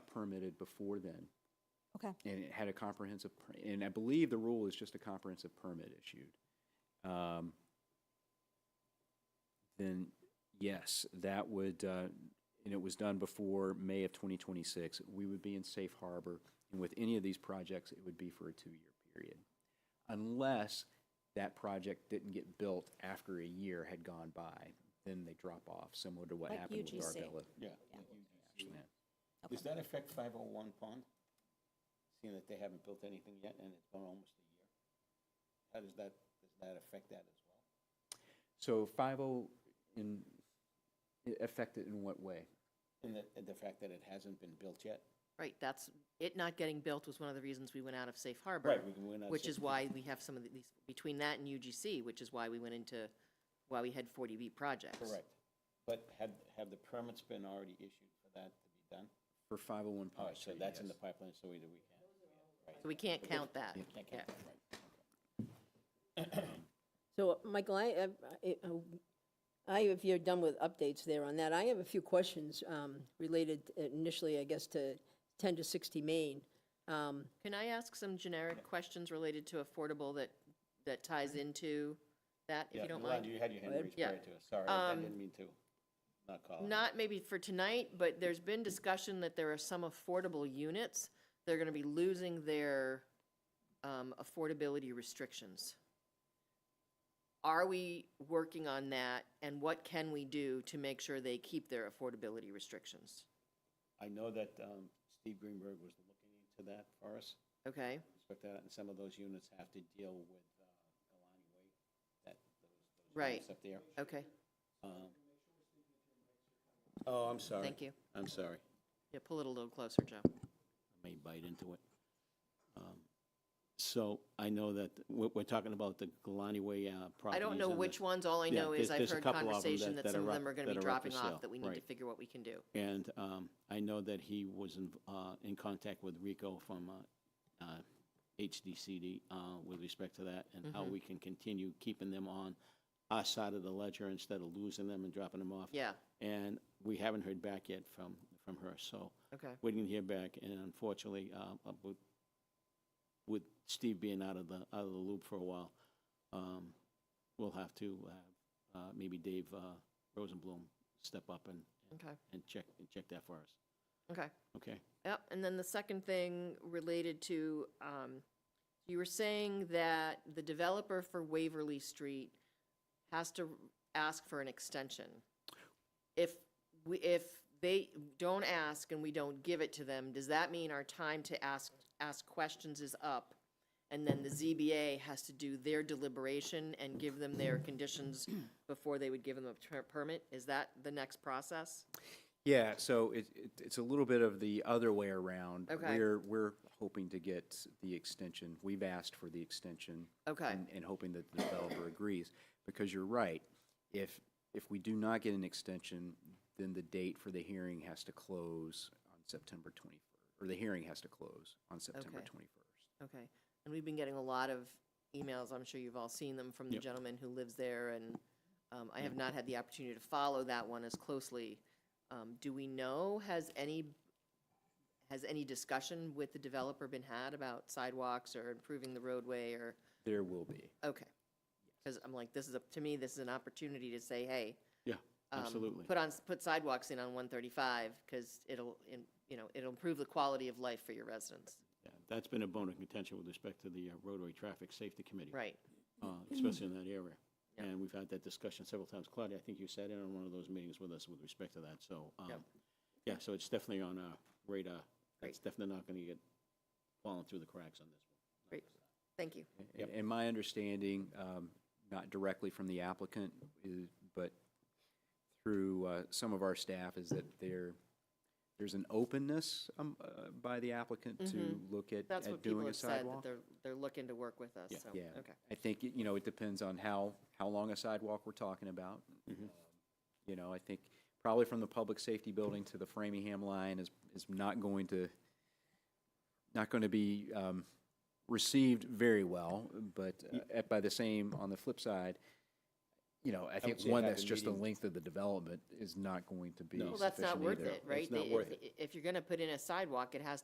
permitted before then, Okay, and it had a comprehensive, per- and I believe the rule is just a comprehensive permit issued, um, then yes, that would, uh, and it was done before May of 2026, we would be in safe harbor. And with any of these projects, it would be for a two-year period, unless that project didn't get built after a year had gone by, then they drop off, similar to what Like happened with UGC. Arbella. Yeah. Ashland. Okay. Does that affect 501 Pond? Seeing that they haven't built anything yet and it's been almost a year? How does that, does that affect that as well? So 50 in, i- affected in what way? And the, and the fact that it hasn't been built yet? Right, that's, it not getting built was one of the reasons we went out of safe harbor. Right, we can win out Which six- is why we have some of these, between that and UGC, which is why we went into, why we had 40B projects. Correct. But had, have the permits been already issued for that to be done? For 501 All Pond right, Oh, so Street, that's in the yes. pipeline, so either we can. So we can't count that. Can't Yeah. count that, right. So, Michael, I, I- I- I, if you're done with updates there on that, I have a few questions um, related initially, I guess, to 10 to 60 Main. Um, Can I ask some generic questions related to affordable that, that ties into that, if Yeah, you don't Yolanda, mind? You had your hand raised Yeah. prior to us. Sorry, I Um, didn't mean to not call. Not maybe for tonight, but there's been discussion that there are some affordable units that are gonna be losing their um, affordability restrictions. Are we working on that, and what can we do to make sure they keep their affordability restrictions? I know that um, Steve Greenberg was looking into that for us. Okay, respect that, and some of those units have to deal with uh, Galani Way, that, those- those Right. units up there. okay, Um, Oh, I'm sorry. thank you. I'm sorry. Yeah, pull it a little closer, Joe. I may bite into it. Um, So I know that, we're, we're talking about the Galani Way uh, I properties. don't know and the- which ones, all I Yeah, know there's- is I've there's a heard couple of 'em that- conversation that that some are of up- them are gonna that be are up for dropping sale, off, that we need to right. figure what we can do. And um, I know that he was in, uh, in contact with Rico from uh, uh, HDCD uh, with respect to that and Mm-hmm. how we can continue keeping them on our side of the ledger instead of losing them and dropping them off. Yeah, And we haven't heard back yet from, from her, so okay, waiting to hear back. And unfortunately, uh, uh, with, with Steve being out of the, out of the loop for a while, um, we'll have to uh, uh, maybe Dave uh, Rosenblum step up and, okay, and check, and check that for us. okay. Okay. Yep, and then the second thing related to, um, you were saying that the developer for Waverly Street has to ask for an extension. If we, if they don't ask and we don't give it to them, does that mean our time to ask, ask questions is up? And then the ZBA has to do their deliberation and give them their conditions before they would give them a per- permit? Is that the next process? Yeah, so it, it, it's a little bit of the other way around. Okay. We're, we're hoping to get the extension, we've asked for the extension. Okay. and- And hoping that the developer agrees, because you're right, if, if we do not get an extension, then the date for the hearing has to close on September twenty-first, or the hearing has to close on September Okay. twenty-first. Okay, and we've been getting a lot of emails, I'm sure you've all seen them, from the gentleman who lives there, and um, Mm-hmm. I have not had the opportunity to follow that one as closely. Um, Do we know, has any, has any discussion with the developer been had about sidewalks or improving the roadway or, There will be. okay? Because I'm like, this is, a- to me, this is an opportunity to say, hey. Yeah, um, absolutely. Put on, put sidewalks in on 135, because it'll, in- you know, it'll improve the quality of life for your residents, Yeah, That's been a bone of contention with respect to the uh, roadway traffic safety committee. right? uh, Especially in that area. Mm-hmm. Yeah. And we've had that discussion several times. Claudia, I think you sat in on one of those meetings with us with respect to that, so. um, Yep. Yeah, so it's definitely on our radar. It's Great. definitely not going to get falling through the cracks on this one. Great, thank you. And- And my understanding, um, not directly from the applicant, is- but through uh, some of our staff, is that there, there's an openness um, uh, by the applicant to look at Mm-hmm. That's what at people doing a have said, that sidewalk. they're, they're looking to work with us, so, Yeah, okay. I think, you know, it depends on how, how long a sidewalk we're talking about. Um, You know, I think probably from the public safety building to the Framingham line is, is not going to, not going to be um, received very well, but uh, at- by the same, on the flip side, you know, I think say one have that's a just the meeting. length of the development is not going to be No. sufficient Well, Well, that's not either. worth it, right? not The- worth if- If you're going to put in a sidewalk, it has